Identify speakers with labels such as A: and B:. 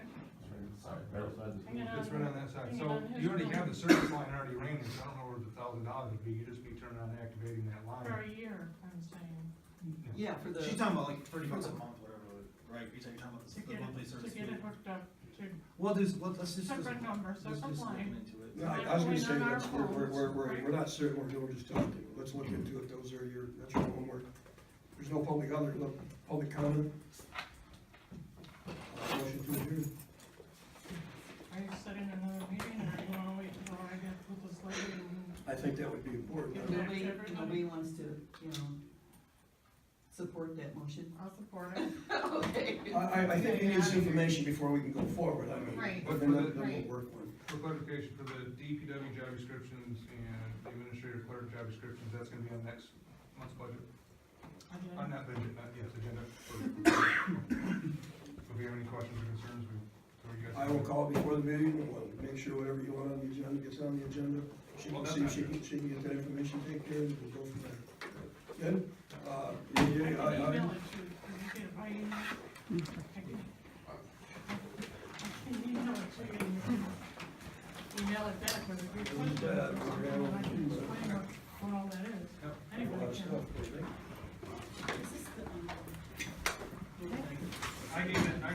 A: side,
B: Right.
A: right side of the school.
C: Hang on.
B: It's right on that side,
C: Hang
B: so
C: on, who's
B: you already
C: going?
B: have the service line already ran, so I don't know where the thousand dollars would be, you'd just be turning on and activating that
C: For
B: line.
C: a year, I'm saying,
B: Yeah.
D: Yeah, for the.
E: She's talking about like thirty bucks a month, whatever, right, you're talking about
C: to
E: the
C: get
E: the monthly
C: it, to
E: service
C: get
E: fee.
C: it hooked up to
E: Well, there's, let- let's just. let's-
C: separate number, so
E: let's
C: some
E: just look
C: line.
E: into it.
F: No, I I was gonna say, that's, we're, we're, we're, we're- we're not certain, we're doing, we're just talking, let's look into it, those are your, that's your homework. There's no public other, no public comment. Uh, Motion to adjourn.
C: Are you setting another meeting, or you wanna wait till I get with this lady and
F: I think that would be important.
C: Yeah.
G: If nobody, if nobody wants to, you know, support that motion.
C: I'll support it?
G: Okay.
F: I, I, I think we need some information before we can go forward, I mean.
C: Right,
F: But then, that- then
C: right.
F: we'll work on
B: For clarification, for the DPW job descriptions and the administrative clerk job descriptions, that's gonna be on next month's budget,
C: Again,
B: on that budget, not yes, agenda. for- If you have any questions or concerns, we, or you
F: it.
B: guys.
F: I will call before the meeting, we'll make sure whatever you want on the agenda gets on the agenda. She
B: Well,
F: can
B: that's
F: see,
B: not
F: she
B: good.
F: can, she can get that information, take care, and we'll go from there. Good? Uh, yeah,
C: I
F: yeah,
C: can
F: I, I,
C: email it to you, Can you get it by email? I can- I can email it to you. Email it back with a good
F: Who's that?
C: question, and I can explain what, what all that is.
B: Yep.
F: a lot
C: Anybody
F: of
C: can,
F: stuff.